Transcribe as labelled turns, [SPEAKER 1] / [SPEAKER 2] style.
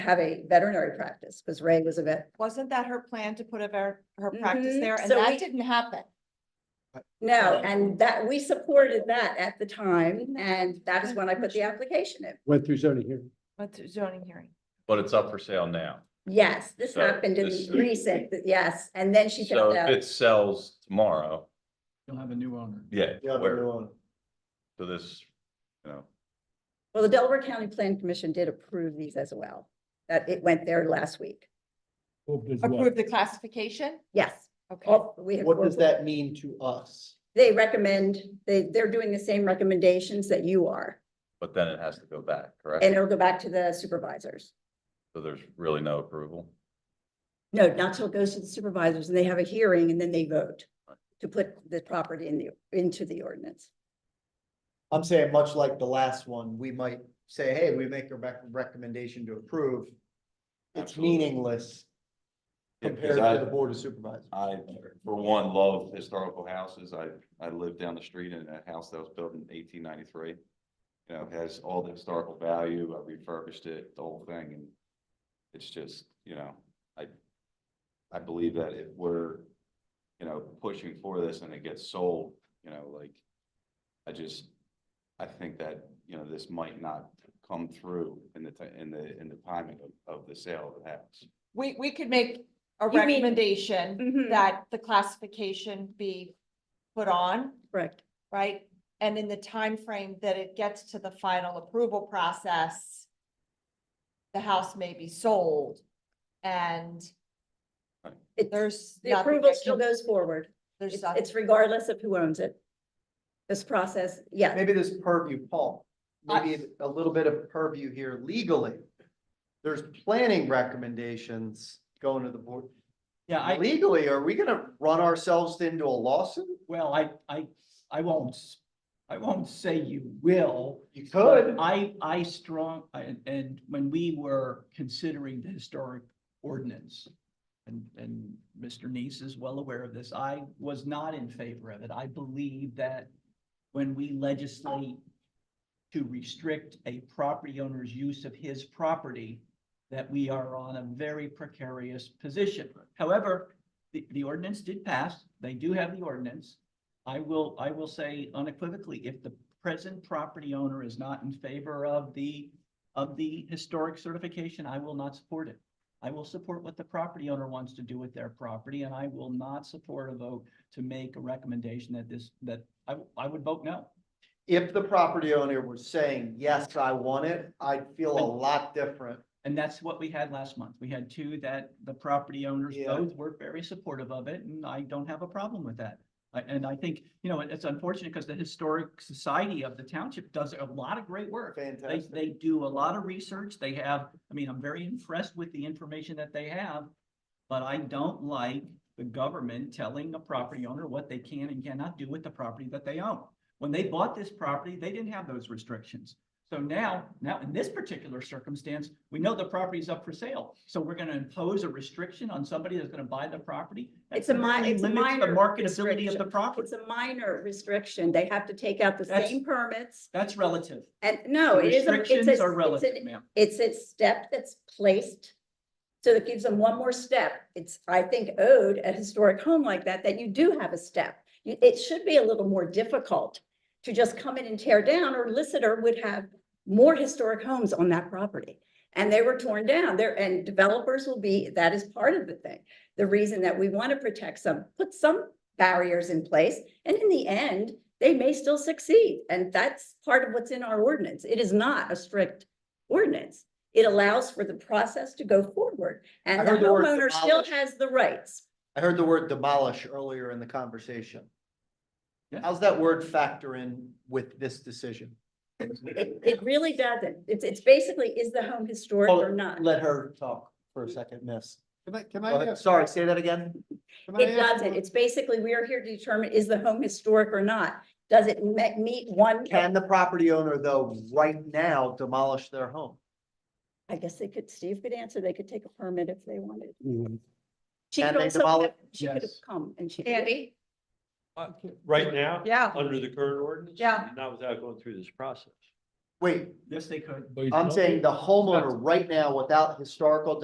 [SPEAKER 1] have a veterinary practice, because Ray was a vet.
[SPEAKER 2] Wasn't that her plan to put a ver- her practice
[SPEAKER 1] Mhm.
[SPEAKER 2] there? And
[SPEAKER 1] So
[SPEAKER 2] that
[SPEAKER 1] we-
[SPEAKER 2] didn't happen.
[SPEAKER 1] No, and that, we supported that at the time, and that is when I put the application in.
[SPEAKER 3] went through zoning here.
[SPEAKER 2] Went through zoning hearing.
[SPEAKER 4] But it's up for sale now.
[SPEAKER 1] Yes, this
[SPEAKER 4] So
[SPEAKER 1] happened in
[SPEAKER 4] this-
[SPEAKER 1] recent, yes, and then she
[SPEAKER 4] So
[SPEAKER 1] found
[SPEAKER 4] if
[SPEAKER 1] out.
[SPEAKER 4] it sells tomorrow,
[SPEAKER 5] You'll have a new owner.
[SPEAKER 4] yeah,
[SPEAKER 3] Yeah,
[SPEAKER 4] where, to this, you know,
[SPEAKER 1] Well, the Delaware County Plan Commission did approve these as well, that it went there last week.
[SPEAKER 2] Approve the Oh. classification?
[SPEAKER 1] Yes.
[SPEAKER 2] Okay.
[SPEAKER 1] all- we have-
[SPEAKER 6] What does that mean to us?
[SPEAKER 1] They recommend, they, they're doing the same recommendations that you are,
[SPEAKER 4] but then it has to go back, correct?
[SPEAKER 1] and it'll go back to the supervisors.
[SPEAKER 4] So there's really no approval.
[SPEAKER 1] No, not till it goes to the supervisors, and they have a hearing, and then they vote to put the property in the, into the ordinance.
[SPEAKER 6] I'm saying much like the last one, we might say, hey, we make a rec- recommendation to approve. It's
[SPEAKER 4] Absolutely.
[SPEAKER 6] meaningless
[SPEAKER 4] Yeah, 'cause
[SPEAKER 6] compared
[SPEAKER 4] I-
[SPEAKER 6] to the board of supervisors.
[SPEAKER 4] I, for one, love historical houses. I, I lived down the street in a house that was built in eighteen ninety-three. You know, it has all the historical value. I refurbished it, the whole thing, and it's just, you know, I, I believe that if we're, you know, pushing for this and it gets sold, you know, like, I just, I think that, you know, this might not come through in the, ti- in the, in the timing of, of the sale of the house.
[SPEAKER 2] We, we could
[SPEAKER 1] You
[SPEAKER 2] make a
[SPEAKER 1] mean- Mm-hmm.
[SPEAKER 2] recommendation that the classification be put on,
[SPEAKER 1] Correct.
[SPEAKER 2] right? And in the time frame that it gets to the final approval process, the house may be sold and
[SPEAKER 1] It-
[SPEAKER 2] there's.
[SPEAKER 1] The
[SPEAKER 2] nothing
[SPEAKER 1] approval
[SPEAKER 2] that
[SPEAKER 1] still
[SPEAKER 2] can-
[SPEAKER 1] goes forward.
[SPEAKER 2] There's
[SPEAKER 1] It's
[SPEAKER 2] nothing.
[SPEAKER 1] it's regardless of who owns it. This process, yeah,
[SPEAKER 6] Maybe this purview, Paul,
[SPEAKER 2] I-
[SPEAKER 6] maybe a little bit of purview here legally. There's planning recommendations going to the board.
[SPEAKER 5] Yeah, I,
[SPEAKER 6] Legally, are we gonna run ourselves into a lawsuit?
[SPEAKER 5] well, I, I, I won't, s- I won't say you will.
[SPEAKER 6] You
[SPEAKER 5] but
[SPEAKER 6] could.
[SPEAKER 5] I, I strong, and, and when we were considering the historic ordinance, and, and Mr. Neese is well aware of this, I was not in favor of it. I believe that when we legislate to restrict a property owner's use of his property, that we are on a very precarious position. However, the, the ordinance did pass. They do have the ordinance. I will, I will say unequivocally, if the present property owner is not in favor of the, of the historic certification, I will not support it. I will support what the property owner wants to do with their property, and I will not support a vote to make a recommendation that this, that I, I would vote no.
[SPEAKER 6] If the property owner was saying, yes, I want it, I'd feel a lot different.
[SPEAKER 5] And that's what we had last month. We had two that the property owners
[SPEAKER 6] Yeah.
[SPEAKER 5] both were very supportive of it, and I don't have a problem with that. I- And I think, you know, it's unfortunate because the Historic Society of the Township does a lot of great work. They,
[SPEAKER 6] Fantastic.
[SPEAKER 5] they do a lot of research. They have, I mean, I'm very impressed with the information that they have. But I don't like the government telling a property owner what they can and cannot do with the property that they own. When they bought this property, they didn't have those restrictions. So now, now in this particular circumstance, we know the property's up for sale. So we're gonna impose a restriction on somebody that's gonna buy the property. that
[SPEAKER 1] It's a mi-
[SPEAKER 5] greatly
[SPEAKER 1] it's a
[SPEAKER 5] limits the
[SPEAKER 1] minor
[SPEAKER 5] Marketability of the
[SPEAKER 1] restriction.
[SPEAKER 5] property.
[SPEAKER 1] it's a minor restriction. They have to take out the
[SPEAKER 5] That's-
[SPEAKER 1] same permits.
[SPEAKER 5] That's relative.
[SPEAKER 1] And no,
[SPEAKER 5] The
[SPEAKER 1] it is, a-
[SPEAKER 5] Restrictions
[SPEAKER 1] it's
[SPEAKER 5] are
[SPEAKER 1] a, it's
[SPEAKER 5] relative,
[SPEAKER 1] an,
[SPEAKER 5] ma'am.
[SPEAKER 1] it's a step that's placed. So that gives them one more step. It's, I think, owed a historic home like that, that you do have a step. You- It should be a little more difficult to just come in and tear down, or Lissitor would have more historic homes on that property. And they were torn down there, and developers will be, that is part of the thing. The reason that we want to protect some, put some barriers in place, and in the end, they may still succeed. And that's part of what's in our ordinance. It is not a strict ordinance. It allows for the process to go forward,
[SPEAKER 6] I
[SPEAKER 1] and the
[SPEAKER 6] heard the word
[SPEAKER 1] homeowner still
[SPEAKER 6] demolish.
[SPEAKER 1] has the rights.
[SPEAKER 6] I heard the word demolish earlier in the conversation.
[SPEAKER 5] Yeah.
[SPEAKER 6] How's that word factor in with this decision?
[SPEAKER 1] It, it really doesn't. It's, it's basically, is the home historic
[SPEAKER 6] Hold
[SPEAKER 1] or
[SPEAKER 6] it,
[SPEAKER 1] not?
[SPEAKER 6] Let her talk for a second, miss.
[SPEAKER 7] Can I, can
[SPEAKER 6] Go
[SPEAKER 7] I
[SPEAKER 6] ahead.
[SPEAKER 7] ask?
[SPEAKER 6] Sorry, say that again.
[SPEAKER 7] can I
[SPEAKER 1] It
[SPEAKER 7] ask
[SPEAKER 1] doesn't.
[SPEAKER 7] one-
[SPEAKER 1] It's basically, we are here to determine, is the home historic or not? Does it me- meet one?
[SPEAKER 6] Can the property owner though, right now demolish their home?
[SPEAKER 1] I guess they could, Steve could answer. They could take a permit if they wanted. She
[SPEAKER 6] Mm-hmm. Can
[SPEAKER 1] could
[SPEAKER 6] they
[SPEAKER 1] also,
[SPEAKER 6] demolish-
[SPEAKER 1] have- she could have
[SPEAKER 5] Yes.
[SPEAKER 1] come and she.
[SPEAKER 2] Andy?
[SPEAKER 8] Right now?
[SPEAKER 2] Yeah.
[SPEAKER 8] Under the current ordinance?
[SPEAKER 2] Yeah.
[SPEAKER 8] Not without going through this process.
[SPEAKER 6] Wait,
[SPEAKER 5] Yes, they could.
[SPEAKER 6] I'm saying the homeowner right now without historical